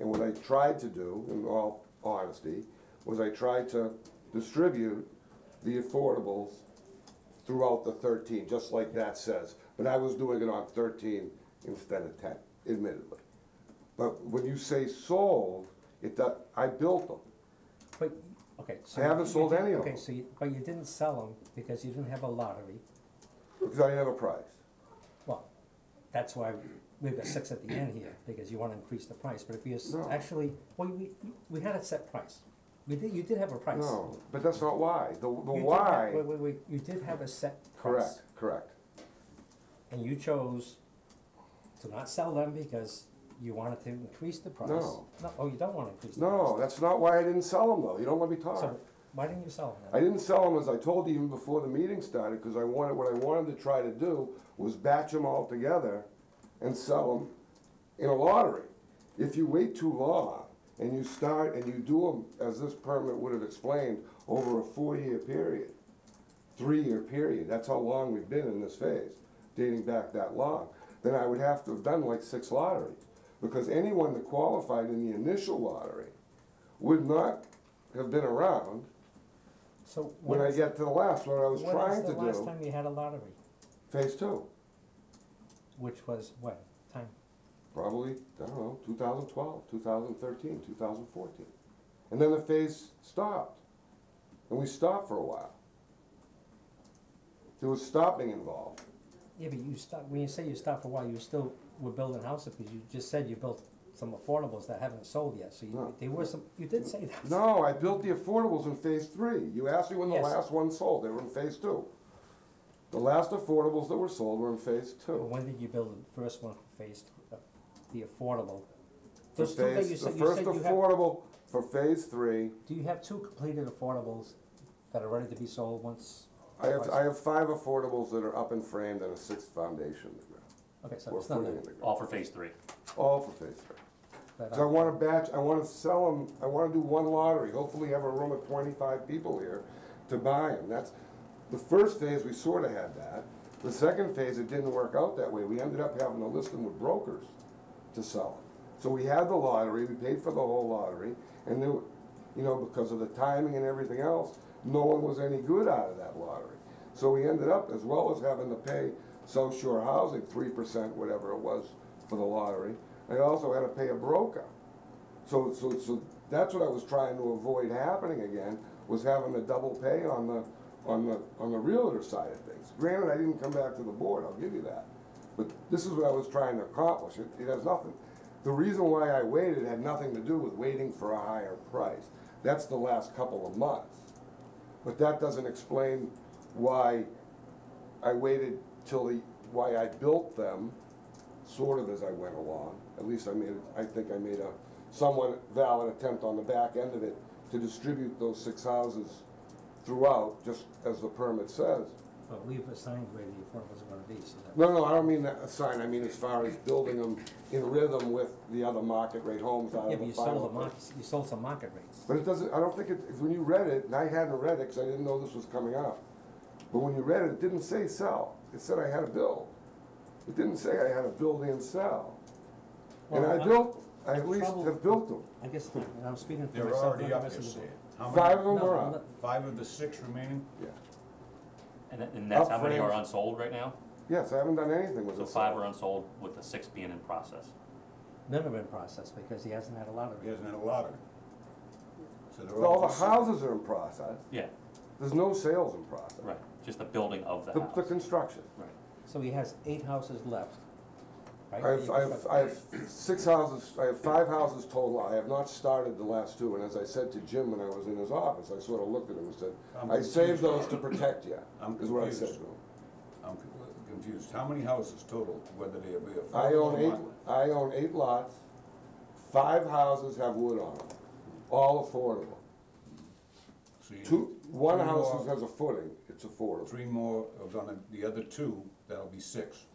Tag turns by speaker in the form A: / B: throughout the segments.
A: And what I tried to do, in all honesty, was I tried to distribute the affordables throughout the thirteen, just like that says. But I was doing it on thirteen instead of ten, admittedly. But when you say sold, it, does- I built them.
B: But, okay, so.
A: I haven't
B: you
A: sold
B: did-
A: any of
B: Okay,
A: them.
B: so, you- but you didn't sell them because you didn't have a lottery.
A: Because I didn't have a price.
B: Well, that's why we've got six at the end here, because you wanna increase the price, but if you, s-
A: No.
B: actually, well, we, we had a set price. We did, you did have a price.
A: No, but that's not why. The, the
B: You did have-
A: why.
B: Wait, wait, wait, you did have a set price.
A: Correct, correct.
B: And you chose to not sell them because you wanted to increase the price.
A: No.
B: oh, you don't wanna increase the price.
A: No, that's not why I didn't sell them though. You don't let me talk.
B: So, why didn't you sell them
A: I
B: then?
A: didn't sell them, as I told you even before the meeting started, because I wanted, what I wanted to try to do was batch them all together and sell them in a lottery. If you wait too long and you start and you do them, as this permit would have explained, over a four-year period, three-year period, that's how long we've been in this phase, dating back that long, then I would have to have done like six lotteries. Because anyone that qualified in the initial lottery would not have been around
B: So,
A: when I
B: is-
A: get to the last one, I was
B: when is
A: trying to
B: the last
A: do
B: time you had a lottery?
A: phase two,
B: Which was what time?
A: probably, I don't know, 2012, 2013, 2014. And then the phase stopped. And we stopped for a while. There was stopping involved.
B: Yeah, but you stop, when you say you stopped for a while, you still were building houses, because you just said you built some affordables that haven't sold yet, so
A: No.
B: you, there were some, you did say that.
A: No, I built the affordables in phase three. You asked me when the
B: Yes.
A: last one sold, they were in phase two. The last affordables that were sold were in phase
B: But
A: two.
B: When did you build the first one for phase, th- uh, the affordable?
A: The
B: Those two that
A: phase-
B: you
A: the
B: said, you
A: first
B: said you have,
A: affordable for phase three
B: do you have two completed affordables that are ready to be sold once?
A: I have,
B: twice?
A: I have five affordables that are up and framed and a sixth foundation in the ground.
B: Okay, so
A: Or
B: it's not
A: footing in
B: that,
A: the ground.
C: All for phase three.
A: All for phase three.
B: but,
A: So I
B: uh,
A: wanna batch, I wanna sell them, I wanna do one lottery, hopefully have a room of twenty-five people here to buy them. That's, the first phase, we sorta had that. The second phase, it didn't work out that way. We ended up having to list them with brokers to sell them. So we had the lottery, we paid for the whole lottery, and there, were- you know, because of the timing and everything else, no one was any good out of that lottery. So we ended up, as well as having to pay South Shore Housing three percent, whatever it was, for the lottery, I also had to pay a broker. So, so, so that's what I was trying to avoid happening again, was having a double pay on the, on the, on the realtor side of things. Granted, I didn't come back to the board, I'll give you that, but this is what I was trying to accomplish, it, it has nothing. The reason why I waited had nothing to do with waiting for a higher price, that's the last couple of months. But that doesn't explain why I waited till the, why I built them, sort of as I went along. At least I made, I think I made a somewhat valid attempt on the back end of it to distribute those six houses throughout, just as the permit says.
B: but we've assigned where the affordables are gonna be, so that.
A: No, no, I don't mean that assign, I mean as far as building them in rhythm with the other market rate homes out
B: Yeah,
A: of
B: but
A: the
B: you
A: final.
B: sold the market, you sold some market rates.
A: But it doesn't, I don't think it, when you read it, and I hadn't read it, because I didn't know this was coming up. But when you read it, it didn't say sell, it said I had to build. It didn't say I had to build and sell. And
B: Well,
A: I
B: I'm-
A: built, I at least
B: trouble-
A: have built them.
B: I guess, and I'm speaking for
D: They're
B: myself,
D: already
B: not
D: up,
B: the
D: you
B: rest
D: see
B: of the
D: it.
B: board.
D: How
A: Five of
D: many,
A: them
B: No,
A: are
B: I'm
A: up,
B: not-
D: five of the six remaining?
A: yeah.
C: And, that- and that's how many are
A: Upgrades.
C: unsold right now?
A: Yes, I haven't done anything with
C: So
A: this.
C: five are unsold with the six being in process.
B: None of it in process, because he hasn't had a lottery.
D: He hasn't had a lottery. So they're
A: All the
D: just-
A: houses are in process,
C: Yeah,
A: there's no sales in process.
C: right, just the building of the
A: The, the
C: house.
A: construction.
C: Right.
B: So he has eight houses left,
A: I
B: right?
A: have, I have, I have six houses, I have five houses total, I have not started the last two, and as I said to Jim when I was in his office, I sort of looked at him and said,
D: I'm
A: I saved
D: confused.
A: those to protect you,
D: I'm
A: is what I said to
D: confused.
A: him.
D: I'm con- uh, confused. How many houses total, whether they be a
A: I
D: five or
A: own
D: one?
A: eight, I own eight lots, five houses have wood on them, all affordable.
D: So you-
A: Two, one
D: three
A: house
D: more-
A: has a footing, it's affordable.
D: Three more are gonna, the other two, that'll be six.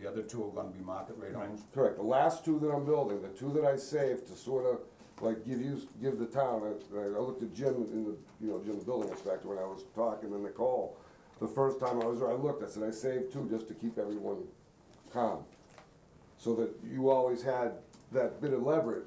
D: The other two are gonna be market rate homes.
A: Correct, the last two that I'm building, the two that I saved to sort of, like, give you, give the town, I, I looked at Jim in the, you know, Jim the building inspector when I was talking to Nicole. The first time I was there, I looked, I said, I saved two just to keep everyone calm. So that you always had that bit of leverage